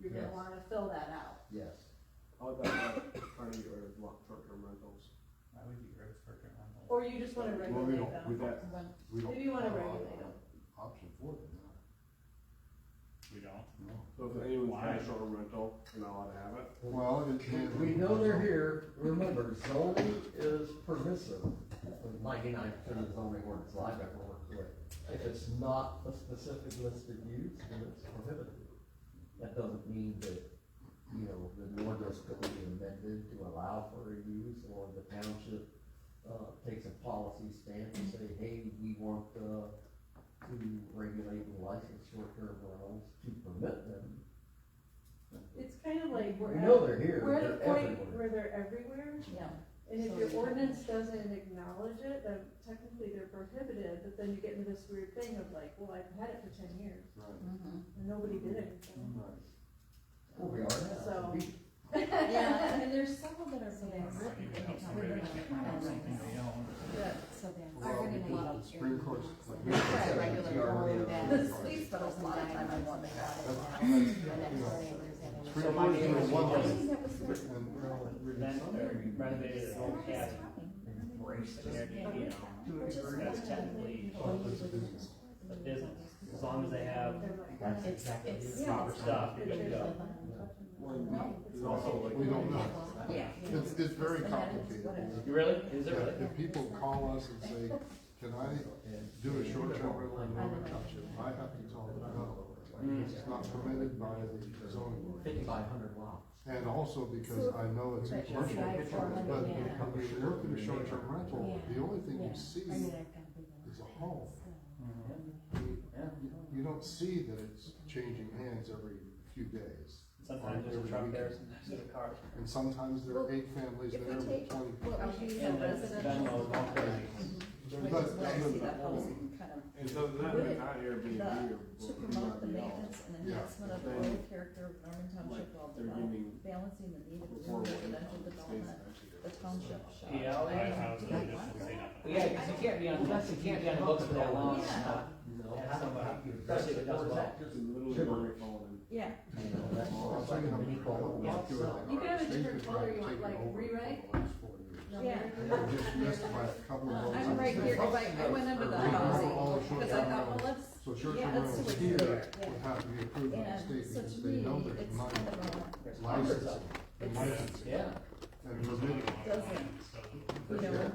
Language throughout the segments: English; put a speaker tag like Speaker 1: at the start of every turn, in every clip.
Speaker 1: to fill that out.
Speaker 2: Yes,
Speaker 3: How about that part of your lo- short-term rentals?
Speaker 4: That would be great for current rental.
Speaker 1: Or you just wanna
Speaker 5: Well, we
Speaker 1: regulate
Speaker 5: don't, we
Speaker 1: them.
Speaker 5: don't,
Speaker 1: When-
Speaker 5: we don't.
Speaker 1: Maybe you wanna
Speaker 5: have a
Speaker 1: regulate them.
Speaker 5: Option for them,
Speaker 4: We don't.
Speaker 5: no, no.
Speaker 3: So if anyone's got
Speaker 4: Why?
Speaker 3: a short-term rental, they're not allowed to have it?
Speaker 5: Well, it- it-
Speaker 2: we know they're here, remember, zoning is permissive, ninety-nine percent of zoning ordinance I've ever worked with. If it's not a specific listed use, then it's prohibited. That doesn't mean that, you know, the ordinance could be amended to allow for a use, or the township, uh, takes a policy stance and say, hey, we want, uh, to regulate and license short-term rentals to permit them.
Speaker 1: It's kind of like we're
Speaker 2: We
Speaker 1: at,
Speaker 2: know they're here,
Speaker 1: we're at a
Speaker 2: they're
Speaker 1: point
Speaker 2: everywhere.
Speaker 1: where they're everywhere,
Speaker 6: Yeah,
Speaker 1: and if
Speaker 6: So
Speaker 1: your
Speaker 6: you-
Speaker 1: ordinance doesn't acknowledge it, then technically they're prohibited, but then you get into this weird thing of like, well, I've had it for ten years,
Speaker 5: Right,
Speaker 6: mhm.
Speaker 1: and nobody did anything.
Speaker 5: right.
Speaker 2: Well, we are now.
Speaker 1: So-
Speaker 2: We-
Speaker 6: Yeah, and there's several that are
Speaker 1: So
Speaker 6: being
Speaker 1: that's-
Speaker 4: Like, you
Speaker 6: written
Speaker 4: can
Speaker 6: that
Speaker 4: help somebody that can't rent out something they own.
Speaker 6: so they are
Speaker 5: Well,
Speaker 6: gonna
Speaker 5: because
Speaker 6: be.
Speaker 5: the Supreme Court's like-
Speaker 6: That's right,
Speaker 5: Yeah, we
Speaker 6: regular
Speaker 5: already
Speaker 6: old
Speaker 5: have
Speaker 6: bad.
Speaker 5: it.
Speaker 6: These fellows in diamonds and what they got it now. And that's why there's that
Speaker 5: Supreme
Speaker 6: other-
Speaker 5: Court's doing one
Speaker 6: I
Speaker 5: thing,
Speaker 6: think that was the-
Speaker 5: but when we're all reading
Speaker 7: Rent,
Speaker 5: some-
Speaker 7: or rent it
Speaker 6: Yeah,
Speaker 7: or
Speaker 6: it's
Speaker 7: have it.
Speaker 6: fine.
Speaker 2: Embrace
Speaker 7: Yeah,
Speaker 2: it.
Speaker 7: you know,
Speaker 2: To a
Speaker 6: Which is
Speaker 2: degree.
Speaker 7: That's
Speaker 6: fine.
Speaker 7: technically
Speaker 2: Oh, it's a business.
Speaker 7: a business, as long as they have
Speaker 1: They're like,
Speaker 2: That's
Speaker 6: It's-
Speaker 2: exactly it.
Speaker 6: it's- yeah,
Speaker 7: proper
Speaker 6: it's-
Speaker 7: stuff, you're good to go.
Speaker 3: Well, it's also like.
Speaker 5: We don't know.
Speaker 6: Yeah.
Speaker 5: It's, it's very
Speaker 6: It's-
Speaker 5: complicated.
Speaker 7: You really? Is it really?
Speaker 5: Yeah, if people call us and say, can I
Speaker 2: And-
Speaker 5: do a short-term rental in Norman Township, I have to tell them no. It's not permitted by the zoning board.
Speaker 2: Fifty-five hundred lots.
Speaker 5: And also because
Speaker 6: So-
Speaker 5: I know it's
Speaker 6: but
Speaker 5: commercial, but
Speaker 6: you're right,
Speaker 5: when
Speaker 6: yeah.
Speaker 5: you look at a short-term rental,
Speaker 6: Yeah.
Speaker 5: the only thing
Speaker 6: Yeah.
Speaker 5: you see,
Speaker 6: I mean,
Speaker 5: you,
Speaker 6: I've got big ones.
Speaker 5: It's a home.
Speaker 4: Mm-hmm.
Speaker 7: Mhm.
Speaker 5: you don't see that it's changing hands every few days.
Speaker 7: Sometimes there's a truck there, sometimes there's a car.
Speaker 5: And sometimes there are eight families
Speaker 6: If
Speaker 5: there,
Speaker 6: we take
Speaker 5: with twenty.
Speaker 6: What we use
Speaker 7: And
Speaker 6: on
Speaker 7: that's
Speaker 6: residential.
Speaker 7: Venmo, don't pay.
Speaker 6: Which
Speaker 5: But
Speaker 6: is where I
Speaker 5: other
Speaker 6: see
Speaker 5: than
Speaker 6: that
Speaker 5: that,
Speaker 6: housing kind of
Speaker 3: And so that,
Speaker 6: Would it-
Speaker 3: not Airbnb or.
Speaker 6: to promote the
Speaker 3: Airbnb
Speaker 6: maintenance and
Speaker 5: Yeah.
Speaker 6: enhancement of the
Speaker 3: Then-
Speaker 6: rural character of Norman Township while
Speaker 3: They're
Speaker 6: develop-
Speaker 3: giving
Speaker 6: balancing the need of new
Speaker 3: four way.
Speaker 6: residential development, the township shall.
Speaker 7: Yeah, I'll-
Speaker 4: Five houses,
Speaker 6: Yeah.
Speaker 4: it doesn't say nothing.
Speaker 7: Yeah, because you can't be on, you can't be on the books for that long.
Speaker 6: Yeah.
Speaker 2: No.
Speaker 7: Have somebody, especially if it does well.
Speaker 3: Just literally
Speaker 2: Sure.
Speaker 3: where it fallen.
Speaker 6: Yeah,
Speaker 2: You know, that's, that's like a legal lot, so.
Speaker 1: You can have a different color you want, like rewrite?
Speaker 6: no,
Speaker 1: Yeah.
Speaker 6: they're-
Speaker 5: They were just missed by a couple of
Speaker 6: Uh,
Speaker 5: those.
Speaker 6: I'm right here, cause I, I went under the
Speaker 5: They cover
Speaker 6: housing,
Speaker 5: all the
Speaker 6: cause I
Speaker 5: short-term
Speaker 6: thought, well,
Speaker 5: rentals.
Speaker 6: let's,
Speaker 5: So
Speaker 6: yeah,
Speaker 5: short-term
Speaker 6: let's see
Speaker 5: rentals
Speaker 6: what's
Speaker 5: here
Speaker 6: there, yeah.
Speaker 5: would have to be approved by the
Speaker 6: And
Speaker 5: state
Speaker 6: so
Speaker 5: because
Speaker 6: to
Speaker 5: they
Speaker 6: me,
Speaker 5: know there's
Speaker 6: it's kind
Speaker 5: money,
Speaker 6: of a,
Speaker 7: There's numbers
Speaker 5: licensing,
Speaker 7: up.
Speaker 5: and licensing,
Speaker 7: Yeah,
Speaker 5: and permitting.
Speaker 6: Doesn't.
Speaker 4: So-
Speaker 6: you know,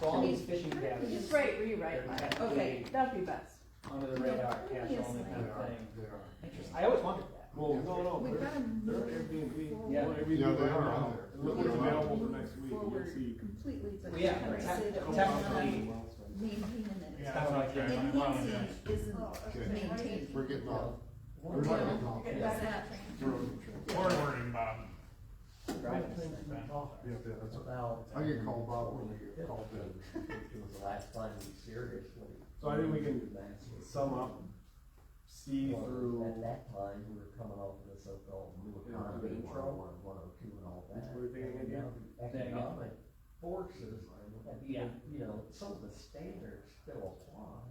Speaker 7: so all these fishing cabins
Speaker 1: Just write, rewrite,
Speaker 7: They're
Speaker 1: mine. okay,
Speaker 7: completely-
Speaker 1: that'd be best.
Speaker 7: under the radar, cash
Speaker 6: Yes,
Speaker 7: only
Speaker 5: They
Speaker 7: kind of
Speaker 5: are,
Speaker 7: thing.
Speaker 5: they are.
Speaker 7: Interesting. I always wondered that.
Speaker 3: Well, no, no,
Speaker 6: we've
Speaker 3: they're,
Speaker 6: got to
Speaker 3: they're
Speaker 6: move
Speaker 3: Airbnb.
Speaker 7: Yeah.
Speaker 3: Well, Airbnb
Speaker 5: Yeah, they
Speaker 3: right
Speaker 5: are
Speaker 3: now.
Speaker 5: out there.
Speaker 3: Look what's
Speaker 5: They're out
Speaker 3: available
Speaker 6: there.
Speaker 3: for next week, you'll
Speaker 6: forward
Speaker 3: see.
Speaker 6: completely, but
Speaker 7: Yeah,
Speaker 6: kind of
Speaker 7: tec-
Speaker 6: say that
Speaker 7: Well,
Speaker 6: we're
Speaker 7: technically-
Speaker 6: not maintaining it.
Speaker 4: Yeah, that's what I tried. I
Speaker 6: Enhancing
Speaker 4: apologize.
Speaker 6: isn't
Speaker 1: Oh,
Speaker 5: Okay.
Speaker 6: maintained.
Speaker 5: We're getting off, we're not getting off.
Speaker 6: It's not-
Speaker 5: We're on the train.
Speaker 4: Forward wording, Bob.
Speaker 7: Driving.
Speaker 5: Yeah, yeah, that's all.
Speaker 2: About.
Speaker 5: I get called out when I get called in.
Speaker 2: It was the last time we seriously.
Speaker 3: So I think we can
Speaker 2: Last year.
Speaker 3: sum up, see
Speaker 2: Well, At
Speaker 3: through
Speaker 2: that time, we were coming off of the so-called new
Speaker 3: Yeah,
Speaker 2: economy,
Speaker 3: the intro.
Speaker 2: 101, 102, and all that.
Speaker 3: What are they gonna
Speaker 2: And
Speaker 3: do?
Speaker 2: now the
Speaker 7: They ain't gonna-
Speaker 2: Economic forces, have
Speaker 7: Yeah.
Speaker 2: been- you know, some of the standards still apply,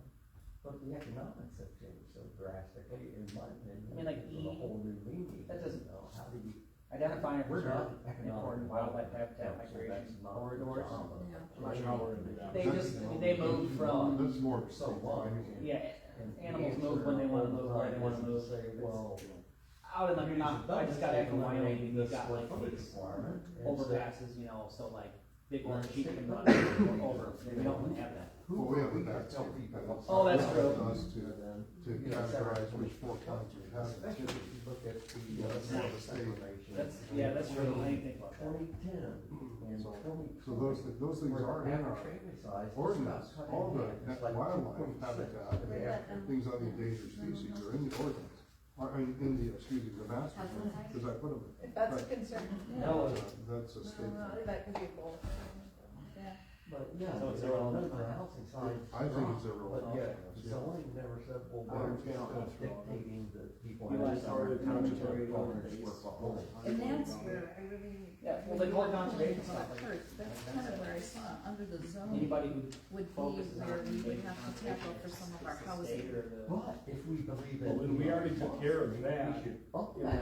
Speaker 2: but the economics have changed so drastically, in my opinion.
Speaker 7: I mean, like,
Speaker 2: it was a
Speaker 7: E-
Speaker 2: whole new meaning.
Speaker 7: that doesn't-
Speaker 2: You know, How do you?
Speaker 7: Identifying
Speaker 2: We're not
Speaker 7: preserved,
Speaker 2: economic
Speaker 7: important wildlife habitat
Speaker 2: development council,
Speaker 7: migration
Speaker 2: that's not our
Speaker 7: corridors.
Speaker 2: job.
Speaker 3: I'm not sure how we're gonna do that.
Speaker 7: They just, they moved from,
Speaker 5: That's more.
Speaker 2: So what?
Speaker 7: yeah,
Speaker 2: And
Speaker 7: animals move when they wanna move, where they wanna move.
Speaker 2: Say, well.
Speaker 7: Out in the, not, I just got back from Wyoming, and
Speaker 2: This
Speaker 7: you've got like
Speaker 2: foot
Speaker 7: these
Speaker 2: requirement, and so
Speaker 7: overpasses, you know, so like, big ones, sheep can run over, we don't have that.
Speaker 2: who
Speaker 5: Well, we have
Speaker 2: are we
Speaker 5: the
Speaker 2: to
Speaker 5: back
Speaker 2: tell
Speaker 5: two.
Speaker 2: people?
Speaker 7: Oh, that's
Speaker 2: what
Speaker 7: true.
Speaker 2: does
Speaker 5: To- To
Speaker 2: you know,
Speaker 5: categorize
Speaker 2: separate-
Speaker 5: which four counties we have.
Speaker 2: Especially if you look at the,
Speaker 5: Yeah,
Speaker 2: uh,
Speaker 5: that's not the
Speaker 2: census
Speaker 5: state.
Speaker 2: information.
Speaker 7: That's, yeah, that's true, I didn't think about that.
Speaker 2: Twenty ten and
Speaker 5: So-
Speaker 2: twenty.
Speaker 5: Hmm. So those, thi- those things are in our ordinance, all the net wildlife habitat, things on the endangered species are in the ordinance. Are in, in the, excuse me, the master plan, cause I put them in.
Speaker 1: If that's a concern,
Speaker 7: No,
Speaker 5: Uh, That's a state. thing.
Speaker 1: that could be a goal. Yeah.
Speaker 2: But yeah,
Speaker 7: So it's
Speaker 2: there are
Speaker 7: all-
Speaker 2: none of the housing signs.
Speaker 5: I think it's a
Speaker 2: But
Speaker 5: real.
Speaker 2: yet, zoning never said, well,
Speaker 3: I
Speaker 2: we're
Speaker 3: understand
Speaker 2: just
Speaker 3: that's wrong.
Speaker 2: dictating that people.
Speaker 7: You
Speaker 2: have
Speaker 7: like
Speaker 2: to-
Speaker 3: Sorry, the township already over
Speaker 2: Government work for all.
Speaker 6: And that's where I really.
Speaker 7: Yeah, well, they call it conservation
Speaker 6: About
Speaker 7: stuff.
Speaker 6: herds, that's kind of where I saw, under the zone
Speaker 7: Anybody who
Speaker 6: would be
Speaker 7: focuses
Speaker 6: where
Speaker 7: on
Speaker 6: we would
Speaker 7: making
Speaker 6: have to
Speaker 7: conservation
Speaker 6: tackle for some of our
Speaker 7: is the
Speaker 6: housing.
Speaker 7: state or the-
Speaker 2: But if we believe in.
Speaker 3: Well, then we already took care of that.
Speaker 2: We should up
Speaker 3: Yeah.
Speaker 2: that